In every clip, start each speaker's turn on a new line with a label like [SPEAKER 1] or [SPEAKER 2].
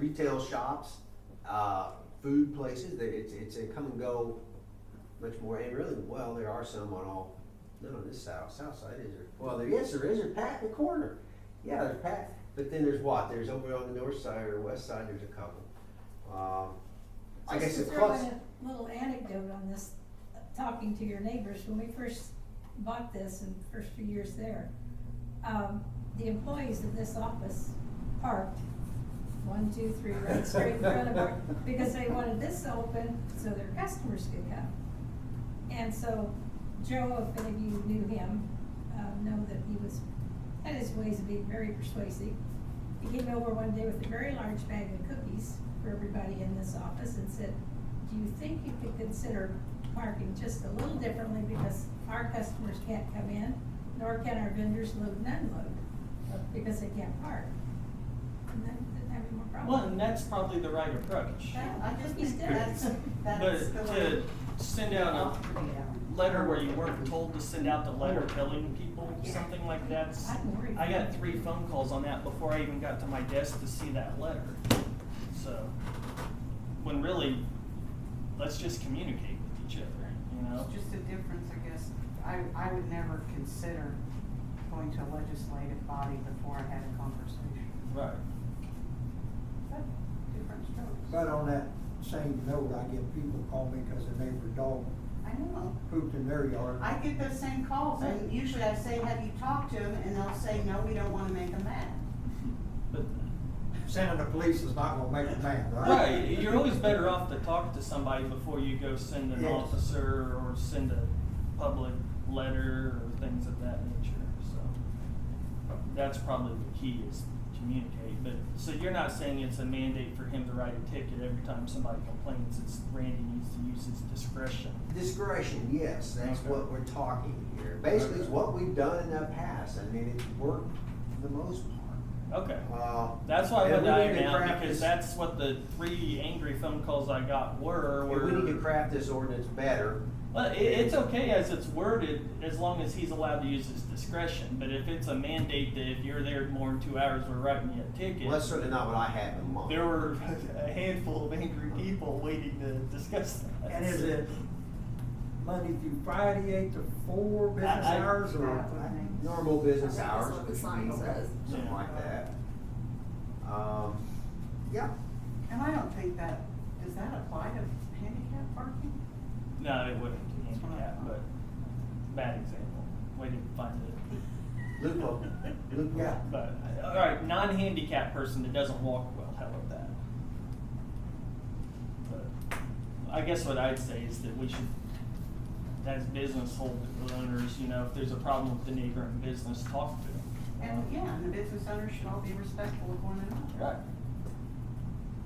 [SPEAKER 1] retail shops, uh, food places, that it's, it's a come and go much more, and really, well, there are some on all, not on this south, south side, is there? Well, there, yes, there is, there's Pat in the corner, yeah, there's Pat, but then there's what, there's over on the north side or west side, there's a couple. Um, I guess
[SPEAKER 2] Just to
[SPEAKER 1] it's
[SPEAKER 2] throw
[SPEAKER 1] plus,
[SPEAKER 2] in a Little anecdote on this, uh, talking to your neighbors, when we first bought this in the first few years there, um, the employees of this office parked one, two, three, right straight in front of our, because they wanted this open so their customers could come. And so Joe, if any of you knew him, um, know that he was, had his ways of being very persuasive. He came over one day with a very large bag of cookies for everybody in this office and said, do you think you could consider parking just a little differently because our customers can't come in, nor can our vendors load and unload, uh, because they can't park? And then didn't have any more
[SPEAKER 3] Well,
[SPEAKER 2] problems.
[SPEAKER 3] and that's probably the right approach.
[SPEAKER 2] That-
[SPEAKER 4] I just
[SPEAKER 2] He's
[SPEAKER 4] think
[SPEAKER 2] dead.
[SPEAKER 4] that's, that's the
[SPEAKER 3] But
[SPEAKER 4] way.
[SPEAKER 3] to send out a letter where you weren't told to send out the letter telling people something like that.
[SPEAKER 2] I'm worried.
[SPEAKER 3] I got three phone calls on that before I even got to my desk to see that letter. So, when really, let's just communicate with each other, you know?
[SPEAKER 4] It's just a difference, I guess. I, I would never consider going to a legislative body before I had a conversation.
[SPEAKER 3] Right.
[SPEAKER 4] But different strokes.
[SPEAKER 5] But on that same note, I get people call me because their neighbor dog
[SPEAKER 4] I know.
[SPEAKER 5] pooped in their yard.
[SPEAKER 4] I get those same calls and usually I say, have you talked to them? And they'll say, no, we don't wanna make them mad.
[SPEAKER 3] But,
[SPEAKER 5] Sending the police is not gonna make a man, right?
[SPEAKER 3] right, you're always better off to talk to somebody before you go send an
[SPEAKER 5] Yes.
[SPEAKER 3] officer or send a public letter or things of that nature, so. That's probably the key is communicate, but, so you're not saying it's a mandate for him to write a ticket every time somebody complains, it's Randy needs to use his discretion.
[SPEAKER 1] discretion, yes, that's
[SPEAKER 3] Okay.
[SPEAKER 1] what we're talking here, basically, it's
[SPEAKER 3] Okay.
[SPEAKER 1] what we've done in the past, I mean, it's worked for the most part.
[SPEAKER 3] Okay,
[SPEAKER 1] Uh,
[SPEAKER 3] that's why I
[SPEAKER 1] and
[SPEAKER 3] put
[SPEAKER 1] we
[SPEAKER 3] that
[SPEAKER 1] need
[SPEAKER 3] in
[SPEAKER 1] to
[SPEAKER 3] now,
[SPEAKER 1] practice-
[SPEAKER 3] because that's what the three angry phone calls I got were,
[SPEAKER 1] And
[SPEAKER 3] were.
[SPEAKER 1] We need to craft this ordinance better.
[SPEAKER 3] Well, it, it's okay as it's worded, as long as he's allowed to use his discretion, but if it's a mandate that if you're there more than two hours, we're writing you a ticket.
[SPEAKER 1] Well, that's certainly not what I have in mind.
[SPEAKER 3] There were a handful of angry people waiting to discuss that.
[SPEAKER 5] And is it Monday through Friday, eight to four business
[SPEAKER 3] I- I-
[SPEAKER 5] hours or?
[SPEAKER 4] I think.
[SPEAKER 1] Normal business
[SPEAKER 6] I think that's
[SPEAKER 1] hours,
[SPEAKER 6] what the
[SPEAKER 1] which would
[SPEAKER 6] sign
[SPEAKER 1] be
[SPEAKER 6] says.
[SPEAKER 1] something
[SPEAKER 3] Yeah.
[SPEAKER 1] like that. Um, yeah,
[SPEAKER 4] And I don't think that, does that apply to handicap parking?
[SPEAKER 3] No, it wouldn't, handicap, but bad example, waiting to find it.
[SPEAKER 1] loophole, loophole.
[SPEAKER 5] Yeah.
[SPEAKER 3] But, uh, all right, non-handicap person that doesn't walk well, how about that? But I guess what I'd say is that we should, as business hold- owners, you know, if there's a problem with the neighboring business, talk to them.
[SPEAKER 4] And, yeah, and the business owners should all be respectful of one another.
[SPEAKER 3] Right.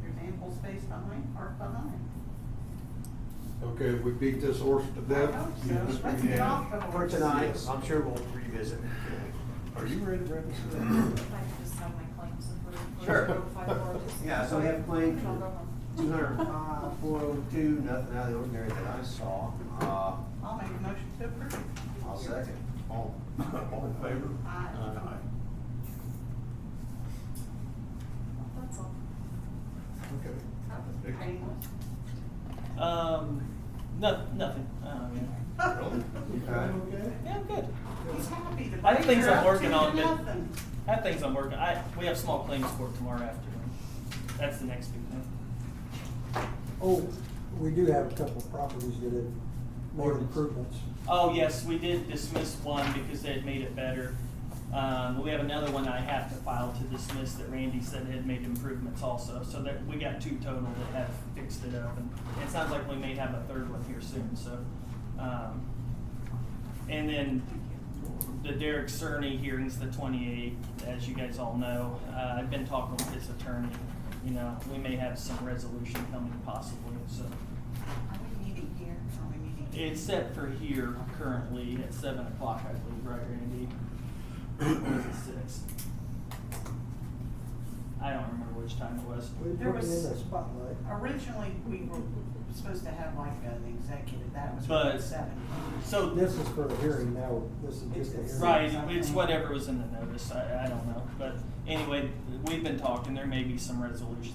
[SPEAKER 4] There's ample space behind, park behind.
[SPEAKER 7] Okay, we beat this horse to
[SPEAKER 4] I
[SPEAKER 7] death.
[SPEAKER 4] hope so.
[SPEAKER 7] Yes,
[SPEAKER 4] Let's
[SPEAKER 7] we
[SPEAKER 4] get
[SPEAKER 7] have.
[SPEAKER 4] off the
[SPEAKER 1] For
[SPEAKER 4] horse.
[SPEAKER 1] tonight, I'm sure we'll revisit.
[SPEAKER 7] Are you ready, Brenda?
[SPEAKER 6] If I could just have my claims approved.
[SPEAKER 1] Sure.
[SPEAKER 6] Sure.
[SPEAKER 1] Yeah, so we have claims for two hundred five, four oh two, nothing out of the ordinary that I saw. Uh,
[SPEAKER 4] I'll make a motion to approve.
[SPEAKER 1] I'll second. All, all in favor?
[SPEAKER 4] Aye.
[SPEAKER 6] That's all.
[SPEAKER 7] Okay.
[SPEAKER 4] That was painless.
[SPEAKER 3] Um, no, nothing, um,
[SPEAKER 7] Really?
[SPEAKER 1] Okay.
[SPEAKER 7] Okay.
[SPEAKER 3] yeah, I'm good.
[SPEAKER 4] He's happy. The
[SPEAKER 3] I think things
[SPEAKER 4] things
[SPEAKER 3] are working on it.
[SPEAKER 4] Nothing.
[SPEAKER 3] I have things I'm working, I, we have small claims court tomorrow afternoon. That's the next big thing.
[SPEAKER 5] Oh, we do have a couple of properties that have made
[SPEAKER 3] Ordinance.
[SPEAKER 5] improvements.
[SPEAKER 3] Oh, yes, we did dismiss one because they had made it better. Um, we have another one I have to file to dismiss that Randy said had made improvements also, so that, we got two total that have fixed it up. And it sounds like we may have a third one here soon, so, um, and then the Derek Cerny hearing's the twenty-eighth, as you guys all know. Uh, I've been talking with his attorney, you know, we may have some resolution coming possibly, so.
[SPEAKER 4] Are we meeting here? Are we meeting?
[SPEAKER 3] It's set for here currently at seven o'clock, I believe, right, Randy? Or is it six? I don't remember which time it was.
[SPEAKER 5] We're
[SPEAKER 4] There
[SPEAKER 5] putting
[SPEAKER 4] was-
[SPEAKER 5] in a spotlight.
[SPEAKER 4] Originally, we were supposed to have like an executive. That was
[SPEAKER 3] But-
[SPEAKER 4] at seven.
[SPEAKER 3] So,
[SPEAKER 5] This is for the hearing now, this is just a hearing.
[SPEAKER 3] right, it's whatever was in the notice, I, I don't know, but anyway, we've been talking, there may be some resolution